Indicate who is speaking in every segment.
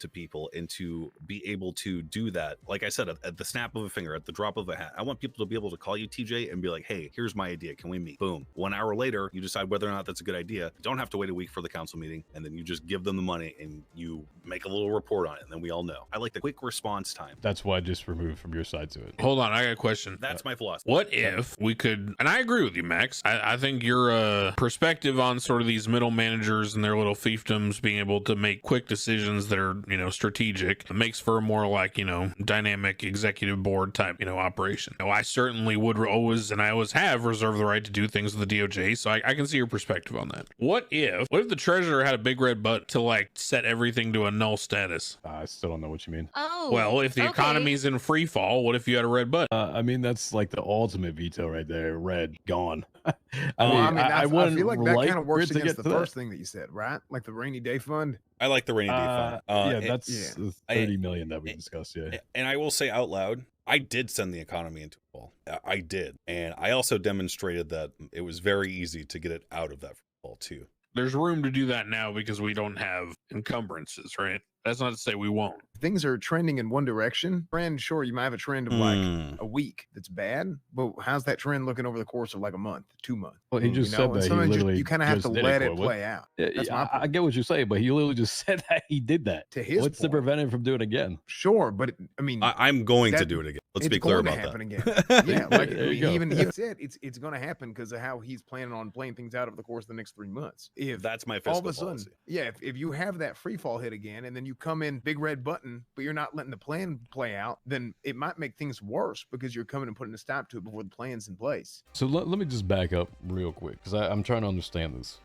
Speaker 1: to people and to be able to do that. Like I said, at, at the snap of a finger, at the drop of a hat, I want people to be able to call you TJ and be like, hey, here's my idea. Can we meet? Boom. One hour later, you decide whether or not that's a good idea. Don't have to wait a week for the council meeting. And then you just give them the money and you make a little report on it. And then we all know. I like the quick response time.
Speaker 2: That's why I just removed from your side to it.
Speaker 3: Hold on, I got a question.
Speaker 1: That's my philosophy.
Speaker 3: What if we could, and I agree with you, Max. I, I think your uh, perspective on sort of these middle managers and their little fiefdoms being able to make quick decisions that are, you know, strategic makes for a more like, you know, dynamic executive board type, you know, operation. Now, I certainly would re- always, and I always have reserved the right to do things with the DOJ, so I, I can see your perspective on that. What if, what if the treasurer had a big red butt to like set everything to a null status?
Speaker 2: I still don't know what you mean.
Speaker 4: Oh.
Speaker 3: Well, if the
Speaker 4: okay.
Speaker 3: economy's in free fall, what if you had a red butt?
Speaker 2: Uh, I mean, that's like the ultimate veto right there. Red, gone. I mean,
Speaker 5: Oh, I mean,
Speaker 2: I,
Speaker 5: that's, I,
Speaker 2: wouldn't
Speaker 5: feel like that kind of
Speaker 2: for
Speaker 5: works
Speaker 2: it to
Speaker 5: against
Speaker 2: get to
Speaker 5: the
Speaker 2: that.
Speaker 5: first thing that you said, right? Like the rainy day fund.
Speaker 1: I like the rainy day fund.
Speaker 2: Uh,
Speaker 1: Uh,
Speaker 2: yeah,
Speaker 1: it-
Speaker 2: that's
Speaker 5: yeah.
Speaker 2: the
Speaker 1: I-
Speaker 2: thirty million that we
Speaker 1: it-
Speaker 2: discussed. Yeah,
Speaker 1: A- And I will say out loud, I did send the economy into a fall. I- I did. And I also demonstrated that it was very easy to get it out of that fall too.
Speaker 3: There's room to do that now because we don't have encumbrances, right? That's not to say we won't.
Speaker 5: Things are trending in one direction. Trend, sure, you might have a trend of like
Speaker 2: Hmm.
Speaker 1: Hmm.
Speaker 5: a week that's bad, but how's that trend looking over the course of like a month, two months?
Speaker 2: well, he
Speaker 1: Mm.
Speaker 2: just
Speaker 5: you know?
Speaker 2: said that.
Speaker 5: And
Speaker 2: He
Speaker 5: sometimes just-
Speaker 2: literally
Speaker 5: you kind of have
Speaker 2: just
Speaker 5: to
Speaker 2: did
Speaker 5: let it
Speaker 2: Coy. What-
Speaker 5: play out.
Speaker 2: Yeah,
Speaker 5: That's
Speaker 2: yeah,
Speaker 5: my
Speaker 2: I, I get what you're saying, but he literally just said that he did that.
Speaker 5: To his
Speaker 2: What's to
Speaker 5: point,
Speaker 2: prevent him from doing it again?
Speaker 5: sure, but it, I mean,
Speaker 1: I, I'm going to
Speaker 5: That-
Speaker 1: do it again. Let's
Speaker 5: it's
Speaker 1: be clear
Speaker 5: going to
Speaker 1: about
Speaker 5: happen
Speaker 1: that.
Speaker 5: yeah, like I
Speaker 2: There you
Speaker 5: mean,
Speaker 2: go.
Speaker 5: even he said it's it's going to happen because of how he's planning on playing things out over the course of the next three months. If
Speaker 1: that's my fiscal
Speaker 5: all of a sudden,
Speaker 1: policy.
Speaker 5: yeah, if, if you have that free fall hit again and then you come in big red button, but you're not letting the plan play out, then it might make things worse because you're coming and putting a stop to it before the plan's in place.
Speaker 2: So let, let me just back up real quick because I'm trying to understand this.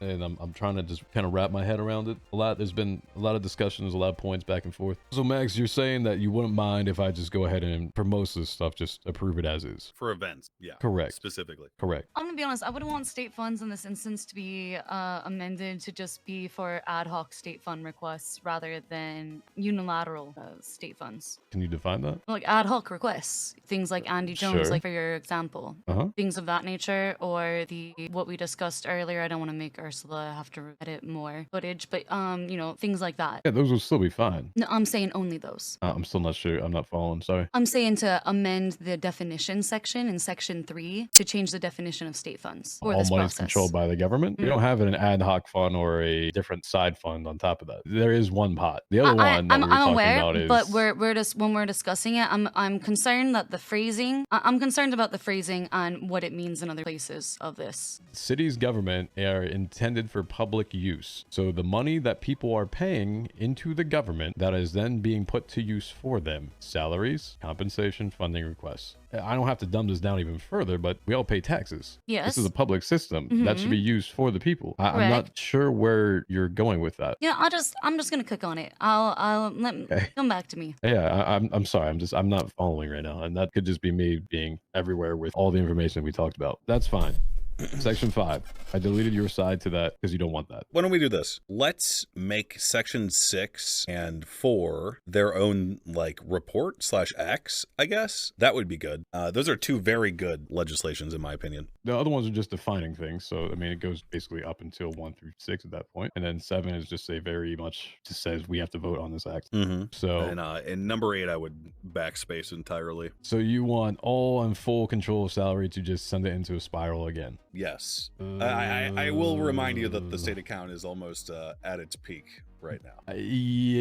Speaker 2: and I'm, I'm trying to just kind of wrap my head around it a lot there's been a lot of discussions a lot of points back and forth so max you're saying that you wouldn't mind if i just go ahead and for most of this stuff just approve it as is
Speaker 1: For events. Yeah.
Speaker 2: correct
Speaker 1: Specifically.
Speaker 2: correct
Speaker 4: I'm gonna be honest. I wouldn't want state funds in this instance to be uh, amended to just be for ad hoc state fund requests rather than unilateral uh, state funds,
Speaker 2: can you define that
Speaker 4: like ad hoc requests. Things like Andy Jones,
Speaker 2: Sure.
Speaker 4: like for your example,
Speaker 2: uh-huh
Speaker 4: things of that nature, or the what we discussed earlier. I don't want to make Ursula have to edit more footage, but um, you know, things like that.
Speaker 2: yeah those will still be fine
Speaker 4: No, I'm saying only those.
Speaker 2: uh, i'm still not sure i'm not following sorry
Speaker 4: I'm saying to amend the definition section in section three to change the definition of state funds for
Speaker 2: all
Speaker 4: this
Speaker 2: money
Speaker 4: process.
Speaker 2: is controlled by the government. We
Speaker 4: Mm.
Speaker 2: don't have an ad hoc fund or a different side fund on top of that. There is one pot. The other
Speaker 4: I- I-
Speaker 2: one that
Speaker 4: I'm,
Speaker 2: we were
Speaker 4: I'm
Speaker 2: talking
Speaker 4: aware,
Speaker 2: about is
Speaker 4: but we're we're just when we're discussing it, I'm I'm concerned that the phrasing. I- I'm concerned about the phrasing on what it means in other places of this.
Speaker 2: cities government are intended for public use so the money that people are paying into the government that is then being put to use for them salaries compensation funding requests i don't have to dumb this down even further but we all pay taxes
Speaker 4: Yes.
Speaker 2: this is a public system that should
Speaker 4: Mhm.
Speaker 2: be used for the people I- i'm not sure where you're going with that
Speaker 4: Yeah, I'll just I'm just gonna cook on it. I'll I'll let
Speaker 2: Okay.
Speaker 4: come back to me.
Speaker 2: yeah I, I'm, I'm sorry i'm just i'm not following right now and that could just be me being everywhere with all the information we talked about that's fine section 5 i deleted your side to that because you don't want that
Speaker 1: Why don't we do this? Let's make section six and four their own like report slash X, I guess. That would be good. Uh, those are two very good legislations in my opinion.
Speaker 2: The other ones are just defining things. So, I mean, it goes basically up until one through six at that point. And then seven is just a very much just says we have to vote on this act.
Speaker 1: Mm-hmm.
Speaker 2: So,
Speaker 1: And uh, and number eight, I would backspace entirely.
Speaker 2: so you want all and full control of salary to just send it into a spiral again.
Speaker 1: Yes, I, I, I will remind you that the state account is almost uh, at its peak right now.
Speaker 2: Uh,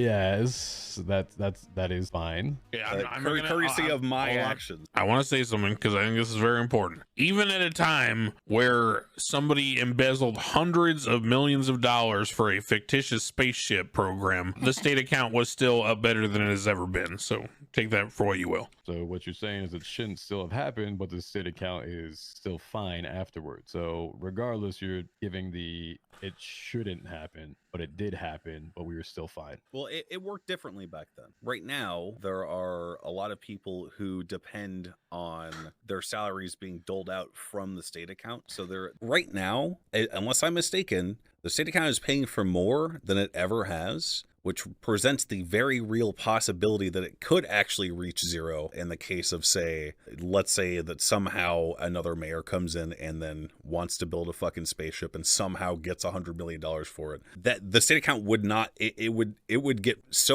Speaker 2: Yes, that that's that is fine.
Speaker 3: Yeah,
Speaker 1: Uh, cour- courtesy of my actions.
Speaker 3: I want to say something because I think this is very important. Even at a time where somebody embezzled hundreds of millions of dollars for a fictitious spaceship program, the state account was still up better than it has ever been. So take that for what you will.
Speaker 2: So what you're saying is it shouldn't still have happened, but the state account is still fine afterward. So regardless, you're giving the it shouldn't happen, but it did happen, but we were still fine.
Speaker 1: Well, it, it worked differently back then. Right now, there are a lot of people who depend on their salaries being doled out from the state account. So they're right now, u- unless I'm mistaken, the state account is paying for more than it ever has, which presents the very real possibility that it could actually reach zero in the case of, say, let's say that somehow another mayor comes in and then wants to build a fucking spaceship and somehow gets a hundred million dollars for it. That the state account would not, it, it would, it would get so